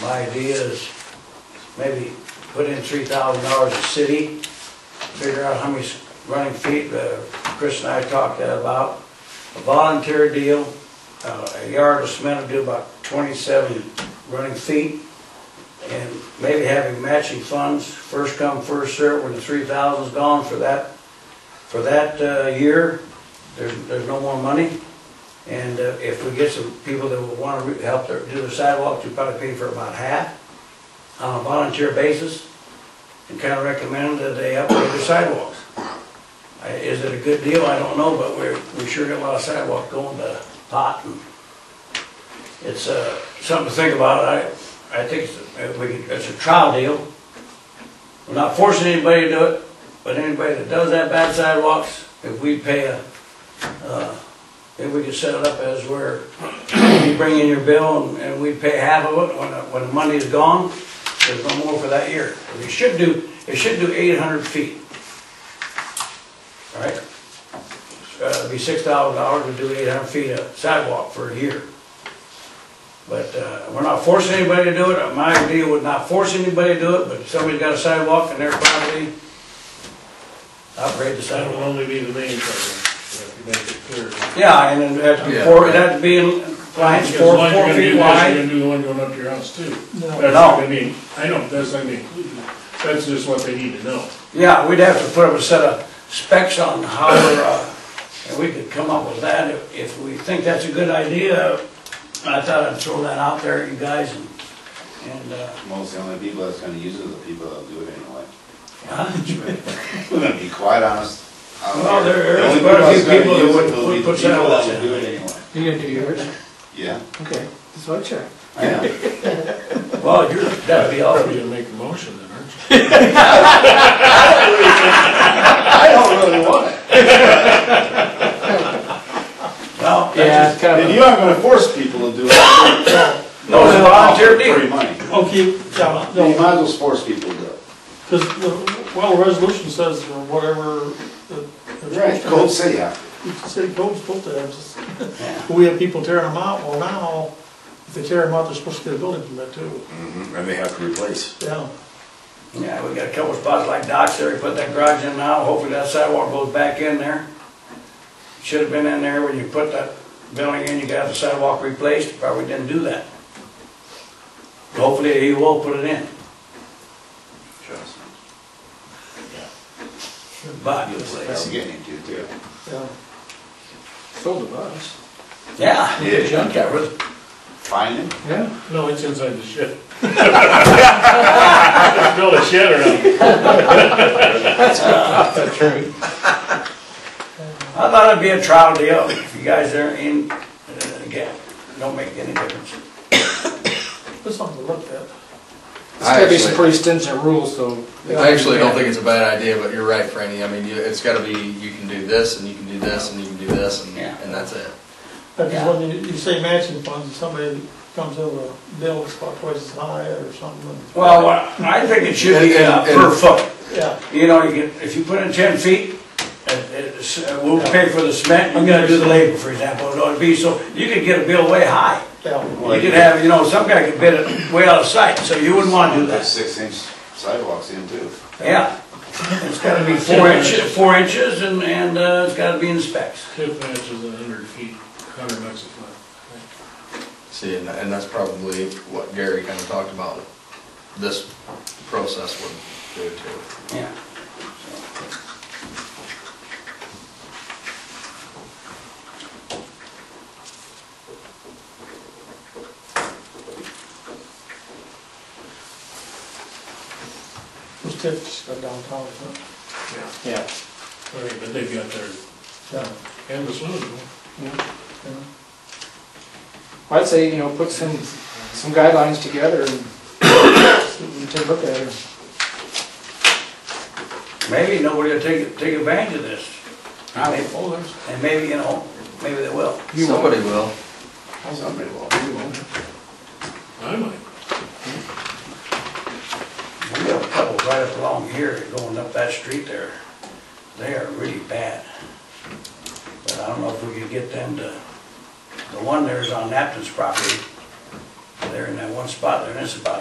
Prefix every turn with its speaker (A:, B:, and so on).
A: My idea is maybe put in three thousand dollars a city, figure out how many running feet, uh, Chris and I talked that about. A volunteer deal, uh, a yard of cement will do about twenty-seven running feet. And maybe having matching funds, first come, first served, when the three thousand's gone for that, for that, uh, year, there's, there's no more money. And uh, if we get some people that will want to help their, do their sidewalks, we probably pay for about half on a volunteer basis and kind of recommend that they upgrade their sidewalks. I- Is it a good deal? I don't know, but we're, we sure got a lot of sidewalk going to pot and it's, uh, something to think about. I, I think it's, a- we can, it's a trial deal. We're not forcing anybody to do it, but anybody that does have bad sidewalks, if we pay a, uh, if we could set it up as where you bring in your bill and, and we pay half of it when, the- when the money is gone, there's no more for that year. It should do, it should do eight hundred feet. All right? Uh, it'd be six thousand dollars to do eight hundred feet of sidewalk for a year. But, uh, we're not forcing anybody to do it. My idea would not force anybody to do it, but if somebody's got a sidewalk in their property, upgrade the
B: That
A: sidewalk.
B: will only be the main thing, if you make it clear.
A: Yeah, and then that'd be
C: Yeah.
A: four, that'd be in compliance
B: Because
A: four,
B: the one you're
A: four
B: gonna do
A: feet
B: this, You're
A: wide.
B: gonna do the one going up to your house too.
D: No.
B: That's
A: No.
B: what I mean, I know, that's not being included, that's just what they need to know.
A: Yeah, we'd have to put up a set of specs on how, we're, uh, and we could come up with that if, if we think that's a good idea. I thought I'd throw that out there, you guys, and, and, uh,
E: Most of the only people that's gonna use it are the people that'll do it anyway.
A: huh?
E: We're gonna be quite honest. out
A: Well,
E: here.
A: there
E: The
A: are
E: only
A: quite a few
E: that's
A: people
E: gonna
A: that
E: use it
A: would-
E: will
A: would
E: be the
A: put
E: people
A: sidewalks
E: that
A: in.
E: will Do it anyway.
D: You gonna do yours?
E: Yeah,
D: Okay, just want to check.
E: I am.
A: Well, you're, that'd be
B: Probably
A: awesome.
B: gonna make a motion then, aren't you?
E: I don't really want it.
A: Well, that's just,
E: And you aren't gonna force people to do it.
A: no, it's a volunteer
E: Free
A: deal.
E: money.
D: Okay, yeah,
E: You might as
D: no,
E: well force people to do it.
D: because, well, the resolution says or whatever. the- the-
E: Cold City, yeah.
D: the City code's supposed to have, just- we have people tearing them out, well now, if they tear them out, they're supposed to get a building permit too,
F: And they have to replace.
D: yeah.
A: Yeah, we got a couple spots like Doc's there, we put that garage in now, hopefully that sidewalk goes back in there. Should've been in there when you put that building in, you got the sidewalk replaced, probably didn't do that. Hopefully he will put it in,
E: Trust me.
A: but,
E: That's getting into it too.
D: Yeah.
C: Sold to us.
A: yeah,
E: Yeah.
A: junk that was,
E: Find it.
C: Yeah.
B: No, it's inside the shed. Build a shed around it.
A: I thought it'd be a trial deal, if you guys are in, uh, again, don't make any difference.
D: That's something to look at.
C: It's gotta be some
F: Actually-
C: pretty stringent rules, so.
F: I actually don't think it's a bad idea, but you're right, Franny. I mean, you- it's gotta be, you can do this, and you can do this, and you can do this, and,
A: Yeah.
F: and that's it.
D: Because when you, you say matching funds, somebody comes in with a bill that's about twice as high or something, and-
A: Well, I think it should be uh, per foot.
D: yeah.
A: You know, you get, if you put in ten feet, uh, it's, uh, we'll pay for the cement, you gotta do the labor, for example, it'd be so, you could get a bill way high.
D: Yeah,
A: You could have, you know, some guy could bid it way out of sight, so you wouldn't wanna do
E: Put
A: that,
E: six inch sidewalks in too.
A: yeah. It's gotta be four inches, four inches and, and, uh, it's gotta be in specs.
B: Tip matches a hundred feet, hundred bucks a foot.
F: See, and, and that's probably what Gary kinda talked about, this process would do too.
A: Yeah.
D: those tips go downtown, so,
C: Yeah.
B: All right, but they've got their
D: yeah,
B: canvas loaded.
D: yeah.
C: I'd say, you know, put some, some guidelines together and and take a look at it.
A: Maybe nobody will take, take advantage of this,
B: Oh, there's,
A: and maybe, you know, maybe they will.
F: Somebody will.
E: Somebody will.
B: I might.
A: We have a couple right up along here, going up that street there, they are really bad. But I don't know if we could get them to, the one there's on Napton's property, they're in that one spot, they're in this spot,